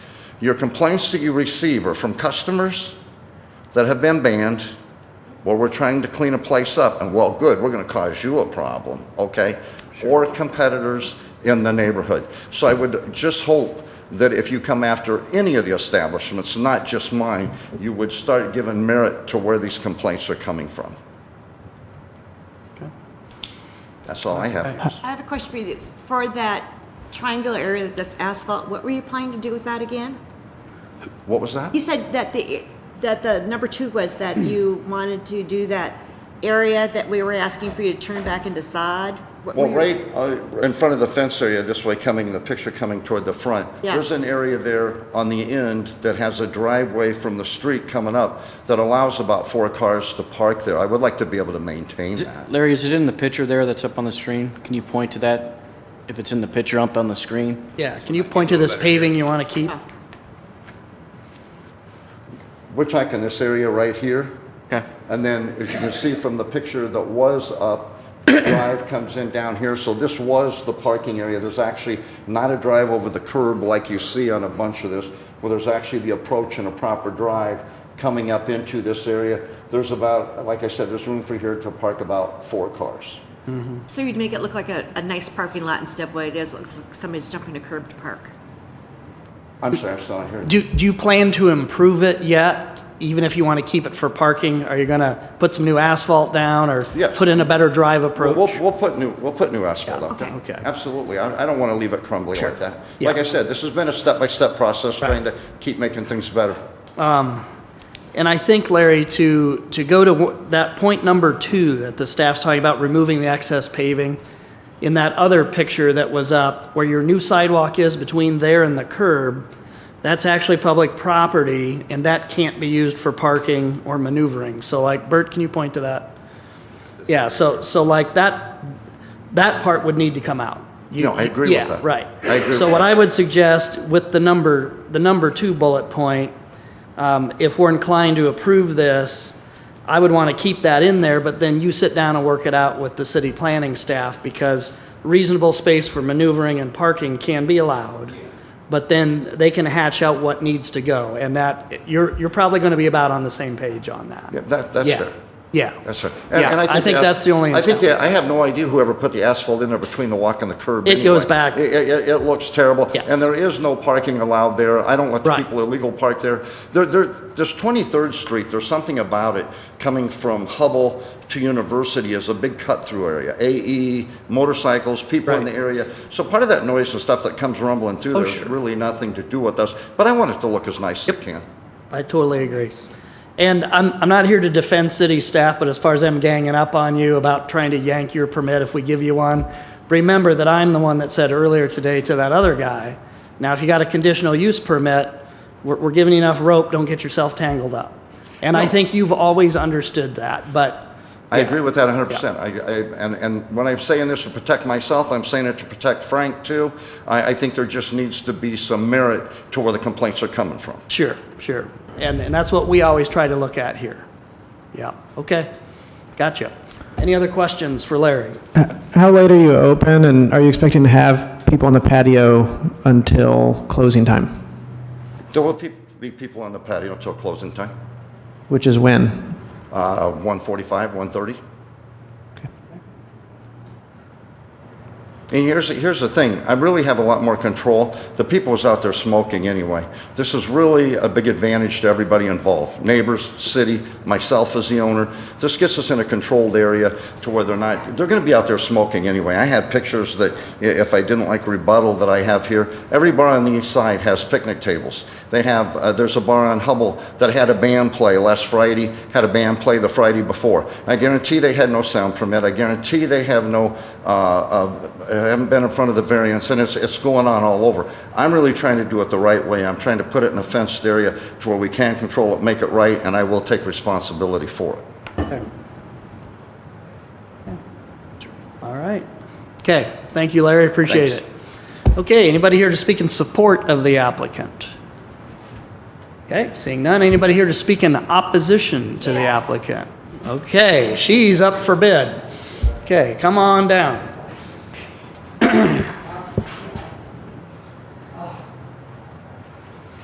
Your complaints that you receive are from customers that have been banned. Well, we're trying to clean a place up, and well, good, we're going to cause you a problem, okay? Or competitors in the neighborhood. So I would just hope that if you come after any of the establishments, not just mine, you would start giving merit to where these complaints are coming from. That's all I have. I have a question for you. For that triangular area that's asphalt, what were you planning to do with that again? What was that? You said that the, that the number two was that you wanted to do that area that we were asking for you to turn back into sod? What were Well, your- right uh, in front of the fence area, this way coming, the picture coming toward the front, Yeah. there's an area there on the end that has a driveway from the street coming up that allows about four cars to park there. I would like to be able to maintain that. Larry, is it in the picture there that's up on the screen? Can you point to that? If it's in the picture up on the screen? Yeah, can you point to this paving you want to keep? We're talking this area right here, Okay. and then as you can see from the picture that was up, the drive comes in down here, so this was the parking area. There's actually not a drive over the curb like you see on a bunch of this, where there's actually the approach and a proper drive coming up into this area. There's about, like I said, there's room for here to park about four cars. So you'd make it look like a, a nice parking lot instead of what it is, looks like somebody's jumping a curb to park. I'm sorry, I'm still not hearing. Do, do you plan to improve it yet, even if you want to keep it for parking? Are you going to put some new asphalt down or Yes. put in a better drive We'll, approach? we'll put new, we'll put new asphalt up there. okay. Okay. Absolutely. I, I don't want to leave it crumbly like that. Yeah. Like I said, this has been a step-by-step process, trying to keep making things better. And I think, Larry, to, to go to wh- that point number two that the staff's talking about, removing the excess paving, in that other picture that was up, where your new sidewalk is between there and the curb, that's actually public property, and that can't be used for parking or maneuvering. So like, Bert, can you point to that? Yeah, so, so like that, that part would need to come out. You- No, I agree with yeah, that. Right. I agree So with what that. I would suggest with the number, the number two bullet point, um, if we're inclined to approve this, I would want to keep that in there, but then you sit down and work it out with the city planning staff because reasonable space for maneuvering and parking can be allowed. But then they can hatch out what needs to go and that, you're, you're probably going to be about on the same page on that. Yeah, that, that's Yeah. fair. Yeah. That's fair. Yeah, I think as- that's the only I think, intent. the- I have no idea whoever put the asphalt in there between the walk and the curb. It goes anyway. back. It, it- it looks terrible. Yes. And there is no parking allowed there. I don't let the Right. people illegal park there. There, there, there's 23rd Street, there's something about it coming from Hubble to University is a big cut-through area. AE, motorcycles, people in Right. Oh, the area. So part of that noise and stuff that comes rumbling through, there's sure. really nothing to do with us. But I want it to look as nice as it can. I totally agree. And I'm, I'm not here to defend city staff, but as far as them ganging up on you about trying to yank your permit if we give you one, remember that I'm the one that said earlier today to that other guy, now if you got a conditional use permit, we're, we're giving you enough rope, don't get yourself tangled up. And I think you've always understood that, but I agree with that 100%. I, I, and, and when I'm saying this to protect myself, I'm saying it to protect Frank too. I, I think there just needs to be some merit to where the complaints are coming from. sure, sure. And, and that's what we always try to look at here. Yeah, okay, gotcha. Any other questions for Larry? How late are you open, and are you expecting to have people on the patio until closing time, There will pe- be people on the patio until closing time, which is when? uh, 145, 130. And here's, here's the thing, I really have a lot more control. The people was out there smoking anyway. This is really a big advantage to everybody involved, neighbors, city, myself as the owner. This gets us in a controlled area to where they're not, they're gonna be out there smoking anyway. I had pictures that, i- if I didn't like rebuttal that I have here, every bar on the east side has picnic tables. They have, uh, there's a bar on Hubble that had a band play last Friday, had a band play the Friday before. I guarantee they had no sound permit, I guarantee they have no, uh, uh, haven't been in front of the variance, and it's, it's going on all over. I'm really trying to do it the right way. I'm trying to put it in a fenced area to where we can control it, make it right, and I will take responsibility for it. All right. Okay, thank you, Larry, appreciate Thanks. it. Okay, anybody here to speak in support of the applicant? Okay, seeing none, anybody here to speak in opposition to the applicant? Okay, she's up for bid. Okay, come on down.